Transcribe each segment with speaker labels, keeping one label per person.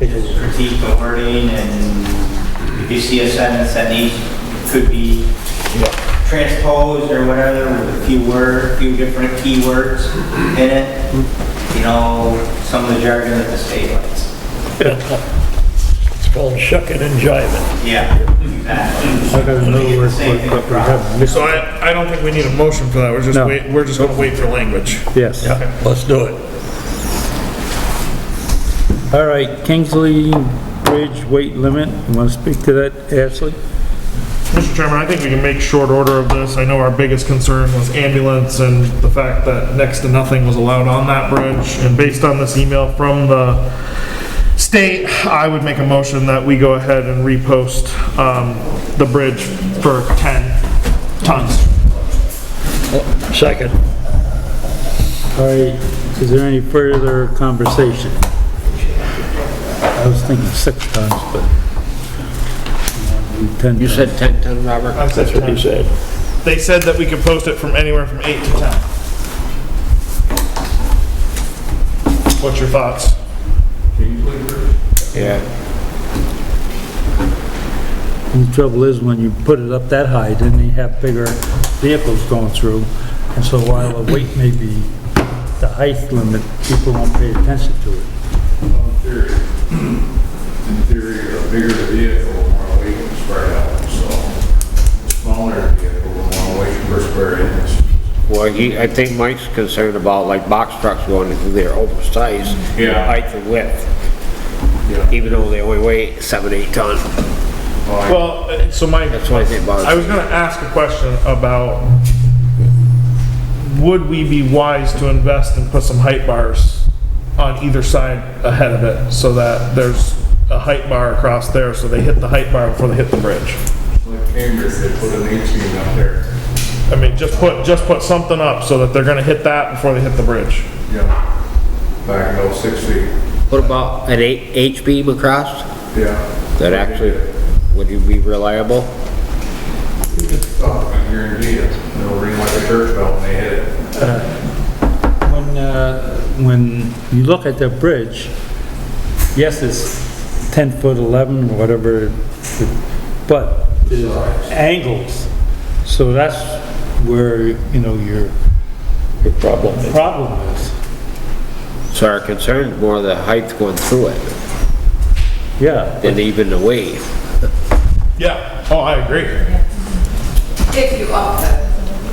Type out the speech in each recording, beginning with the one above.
Speaker 1: just critique the wording and if you see a sentence that needs, could be transposed or whatever with a few word, few different keywords in it, you know, some of the jargon that the state likes.
Speaker 2: It's called shucking and jiving.
Speaker 1: Yeah, exactly.
Speaker 3: I don't know what, what what we have missed.
Speaker 4: So I, I don't think we need a motion for that, we're just
Speaker 3: No.
Speaker 4: wait, we're just gonna wait for language.
Speaker 3: Yes.
Speaker 2: Let's do it.
Speaker 3: All right, Kingsley Bridge weight limit. You want to speak to that, Ashley?
Speaker 4: Mr. Chairman, I think we can make short order of this. I know our biggest concern was ambulance and the fact that next to nothing was allowed on that bridge. And based on this email from the state, I would make a motion that we go ahead and repost um, the bridge for 10 tons.
Speaker 2: Second.
Speaker 3: All right, is there any further conversation? I was thinking six times, but... um, ten
Speaker 5: You
Speaker 3: times.
Speaker 5: said 10 ton, Robert?
Speaker 4: I said
Speaker 2: That's what he
Speaker 4: 10.
Speaker 2: said.
Speaker 4: They said that we could post it from anywhere from 8 to 10. What's your thoughts?
Speaker 5: Yeah.
Speaker 3: And The trouble is, when you put it up that high, then you have bigger vehicles going through, and so while the weight may be the height limit, people won't pay attention to it.
Speaker 6: In theory, in theory, a bigger the vehicle, the more weight can spread out, so the smaller the vehicle, the more weight per square inch.
Speaker 5: Well, he, I think Mike's concerned about like box trucks going through there oversized.
Speaker 6: Yeah.
Speaker 5: Height and width,
Speaker 6: Yeah.
Speaker 5: even though they only weigh seven, eight ton.
Speaker 6: Well,
Speaker 4: Well, uh, so my,
Speaker 5: That's why I think
Speaker 4: I was
Speaker 5: bothers me.
Speaker 4: gonna ask a question about, would we be wise to invest and put some height bars on either side ahead of it, so that there's a height bar across there, so they hit the height bar before they hit the bridge?
Speaker 6: Like Cambridge, they put an eighteen up there.
Speaker 4: I mean, just put, just put something up, so that they're gonna hit that before they hit the bridge.
Speaker 6: Yeah. Back about six feet.
Speaker 5: What about an eight, H beam across?
Speaker 6: Yeah.
Speaker 5: That actually, would you be reliable?
Speaker 6: Oh, I guarantee it. They'll ring like a church bell when they hit it.
Speaker 3: When, uh, when you look at the bridge, yes, it's 10 foot 11, or whatever, but there's angles, so that's where, you know, your
Speaker 2: Your problem is.
Speaker 3: problem is.
Speaker 5: So our concern is more the height going through it
Speaker 3: Yeah,
Speaker 5: than even the weight.
Speaker 4: Yeah, oh, I agree.
Speaker 7: If you up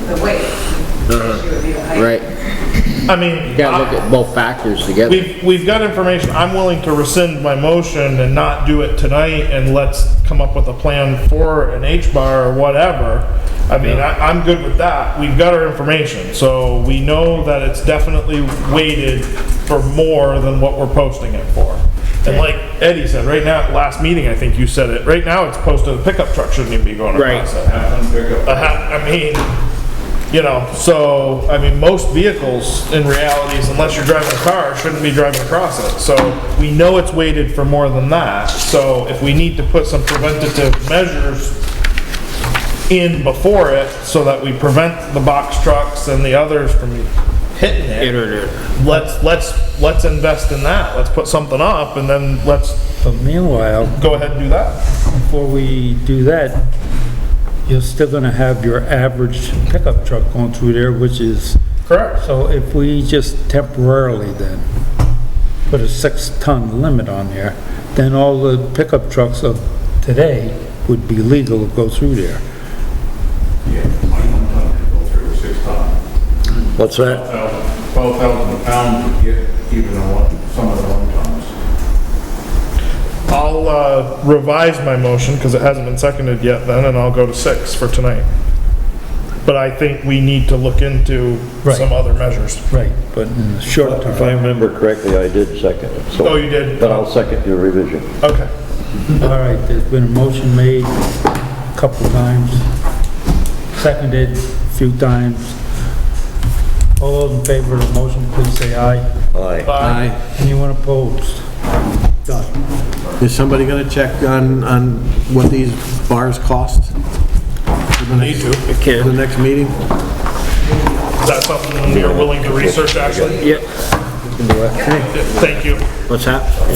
Speaker 7: the, the weight, it would be the height.
Speaker 5: Right,
Speaker 4: I mean.
Speaker 5: you gotta look at both factors together.
Speaker 4: We've, we've got information, I'm willing to rescind my motion and not do it tonight, and let's come up with a plan for an H-bar or whatever. I mean, I, I'm good with that, we've got our information, so we know that it's definitely weighted for more than what we're posting it for. And like Eddie said, right now, last meeting, I think you said it, right now it's posted, a pickup truck shouldn't even be going across
Speaker 5: Right.
Speaker 4: it.
Speaker 6: Have them pick up.
Speaker 4: Uh, I mean, you know, so, I mean, most vehicles in reality, is unless you're driving a car, shouldn't be driving across it. So we know it's weighted for more than that. So if we need to put some preventative measures in before it so that we prevent the box trucks and the others from hitting it,
Speaker 5: Internet.
Speaker 4: let's, let's, let's invest in that. Let's put something up and then let's
Speaker 3: but meanwhile,
Speaker 4: go ahead and do that.
Speaker 3: before we do that, you're still gonna have your average pickup truck going through there, which is,
Speaker 4: Correct.
Speaker 3: so if we just temporarily then put a six-ton limit on there, then all the pickup trucks of today would be legal to go through there.
Speaker 6: Yeah, uh, twenty-one ton, they go through six ton.
Speaker 2: What's that?
Speaker 6: 12,000 pounds to get even on one- some of the long tons.
Speaker 4: I'll uh, revise my motion because it hasn't been seconded yet then, and I'll go to six for tonight. But I think we need to look into
Speaker 3: Right.
Speaker 4: some other measures.
Speaker 3: Right. But mm, in the short
Speaker 2: If I
Speaker 3: term,
Speaker 2: remember correctly, I did second it, so.
Speaker 4: Oh, you did?
Speaker 8: uh,
Speaker 2: But I'll second your revision.
Speaker 4: Okay.
Speaker 3: all right, there's been a motion made a couple times, seconded a few times. All those in favor of the motion, please say aye.
Speaker 2: Aye.
Speaker 4: Bye.
Speaker 3: Anyone opposed? Done.
Speaker 8: Is somebody gonna check on, on what these bars cost?
Speaker 4: Need to. Is
Speaker 8: For the next meeting?
Speaker 4: that something you're willing to research, actually?
Speaker 5: Yep.
Speaker 4: Thank you.
Speaker 5: What's that?